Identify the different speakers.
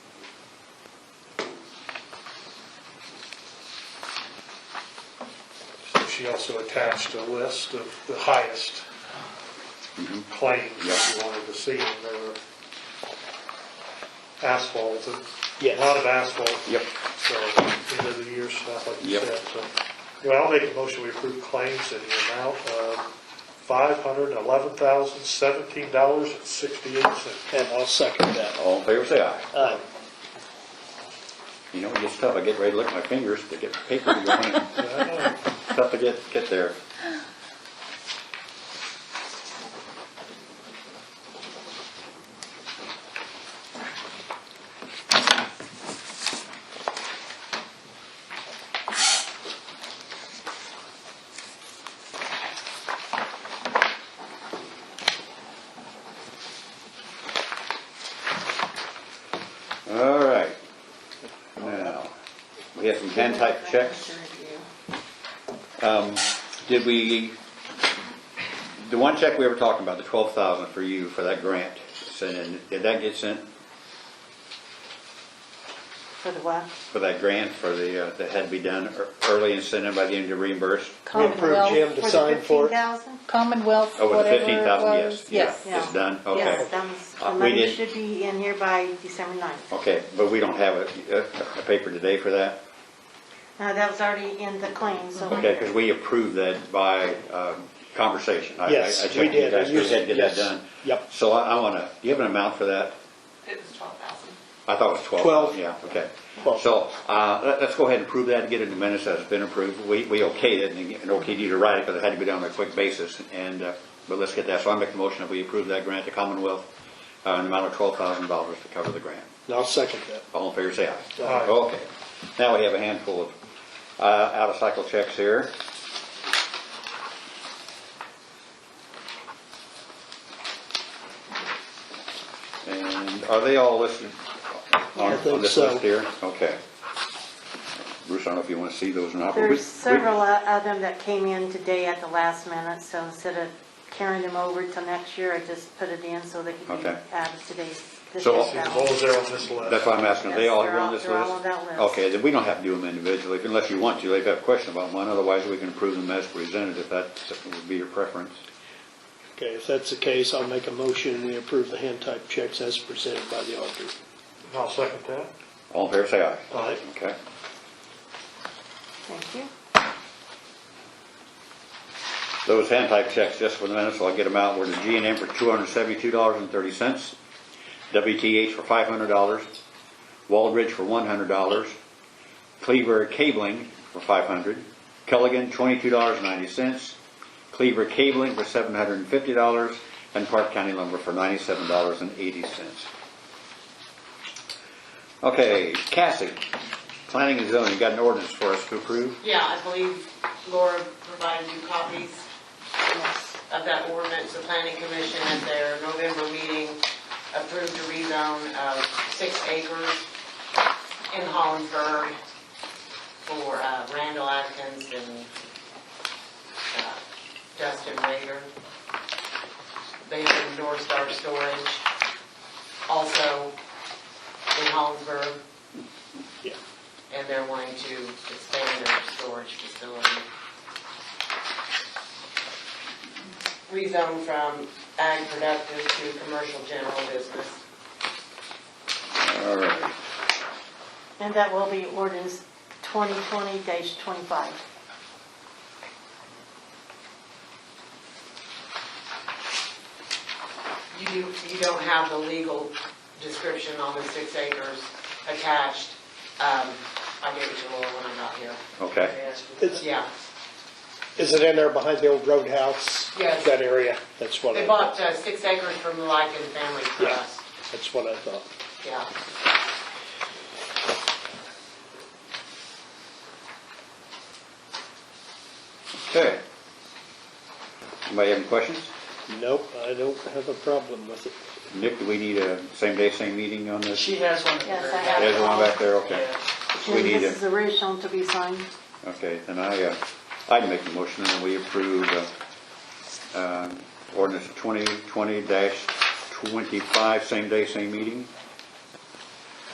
Speaker 1: she also attached a list of the highest claims
Speaker 2: Mm-hmm.
Speaker 1: that you wanted to see, and there were asphalt, a
Speaker 3: Yes.
Speaker 1: lot of asphalt.
Speaker 2: Yep.
Speaker 1: So, end of the year stuff, like you
Speaker 2: Yep.
Speaker 1: said, so. Well, I'll make a motion, we approve claims in the amount of five hundred eleven thousand seventeen dollars and sixty-eight cents.
Speaker 3: And I'll second that.
Speaker 2: All in favor, say aye.
Speaker 3: Aye.
Speaker 2: You know, it's tough, I get ready to lick my fingers to get paper to go in. Tough to get, get there. All right. Now, we have some hand type checks. Um, Did we, the one check we were talking about, the twelve thousand for you, for that grant, sending, did that get sent
Speaker 4: For the what?
Speaker 2: for that grant for the, uh, that had to be done ear- early and sent in by the end of reimburse?
Speaker 3: We approved Jim
Speaker 5: Commonwealth,
Speaker 3: to sign for it.
Speaker 4: $15,000?
Speaker 5: Commonwealth,
Speaker 2: Oh, with the
Speaker 5: whatever
Speaker 2: fifteen
Speaker 5: it
Speaker 2: thousand,
Speaker 5: was.
Speaker 2: yes. yeah,
Speaker 4: yes.
Speaker 2: It's done, okay.
Speaker 4: Yes, that was,
Speaker 2: Uh,
Speaker 4: the
Speaker 2: we
Speaker 4: money
Speaker 2: didn't-
Speaker 4: should be in here by December 9th.
Speaker 2: Okay, but we don't have a, a- a paper today for that?
Speaker 4: Uh, That was already in the claim, so.
Speaker 2: Okay, because we approved that by um, conversation. I- I-
Speaker 3: Yes,
Speaker 2: I
Speaker 3: we
Speaker 2: checked with
Speaker 3: did.
Speaker 2: you guys,
Speaker 3: We
Speaker 2: we had to get that
Speaker 3: used-
Speaker 2: done.
Speaker 3: Yep.
Speaker 2: So I want to, do you have an amount for that?
Speaker 6: It was twelve thousand.
Speaker 2: I thought it was 12.
Speaker 3: Twelve.
Speaker 2: Yeah, okay.
Speaker 3: Twelve.
Speaker 2: So uh, let- let's go ahead and approve that, and get it in the minutes that it's been approved. We we okayed it, and and okayed you to write it, because it had to be done on a quick basis, and, uh, but let's get that. So I make the motion that we approve that grant to Commonwealth, uh, an amount of $12,000 to cover the grant.
Speaker 3: And I'll second that.
Speaker 2: All in favor, say aye.
Speaker 1: Aye.
Speaker 2: Okay. Now we have a handful of uh, out-of-cycle checks here. And are they all listed on
Speaker 3: I think
Speaker 2: on this
Speaker 3: so.
Speaker 2: list here? Okay. Bruce, I don't know if you want to see those or not. but we-
Speaker 4: There's
Speaker 2: we-
Speaker 4: several o- of them that came in today at the last minute, so instead of carrying them over till next year, I just put it in so they could be
Speaker 2: Okay.
Speaker 4: out of today's. this
Speaker 2: So-
Speaker 4: year's
Speaker 1: See, the
Speaker 4: ballot.
Speaker 1: holes there on this list.
Speaker 2: That's why I'm asking, are they
Speaker 4: Yes,
Speaker 2: all
Speaker 4: they're
Speaker 2: here on
Speaker 4: all-
Speaker 2: this list?
Speaker 4: they're all on that list.
Speaker 2: Okay, then we don't have to do them individually, unless you want to, if you have a question about one, otherwise we can approve them as presented, if that would be your preference.
Speaker 3: Okay, if that's the case, I'll make a motion, we approve the hand type checks as presented by the auditor.
Speaker 1: And I'll second that.
Speaker 2: All in favor, say aye.
Speaker 3: Aye.
Speaker 2: Oh, Okay.
Speaker 4: Thank you.
Speaker 2: Those hand type checks, just for the minute, so I'll get them out, were the G and M for two hundred seventy-two dollars and thirty cents, WTH for five hundred dollars, Waldridge for one hundred dollars, Cleaver Cabling for five hundred, Culligan twenty-two dollars and ninety cents, Cleaver Cabling for seven hundred and fifty dollars, and Park County Lumber for ninety-seven dollars and eighty cents. Okay, Cassie, planning and zoning, got an ordinance for us to approve?
Speaker 6: Yeah, I believe Laura provided you copies
Speaker 4: Yes.
Speaker 6: of that ordinance. The planning commission at their November meeting approved a rezone of six acres in Hollinsburg for uh, Randall Atkins and uh, Justin Rader. They have endorsed our storage also in Hollinsburg.
Speaker 3: Yeah.
Speaker 6: and they're wanting to expand their storage facility. Rezone from ag productive to commercial general business.
Speaker 2: All right.
Speaker 4: And that will be ordinance 2020-25.
Speaker 6: You, do- you don't have the legal description on the six acres attached. Um, I gave it to Laura when I got here.
Speaker 2: Okay.
Speaker 3: It's-
Speaker 6: Yeah,
Speaker 3: Is it in there behind the old roadhouse?
Speaker 6: Yes.
Speaker 3: That area? That's what
Speaker 6: they
Speaker 3: I,
Speaker 6: bought uh, six acres from the Lycan Family Trust,
Speaker 3: that's what I thought.
Speaker 6: yeah.
Speaker 2: Okay. Anybody have any questions?
Speaker 3: Nope, I don't have a problem with it.
Speaker 2: Nick, do we need a same day, same meeting on this?
Speaker 6: She has one.
Speaker 4: Yes, I have.
Speaker 2: There's one back there, okay. We
Speaker 4: And
Speaker 2: need
Speaker 4: This is original to be signed.
Speaker 2: Okay, then I, uh, I'd make the motion that we approve uh, um, ordinance 2020-25, same day, same meeting.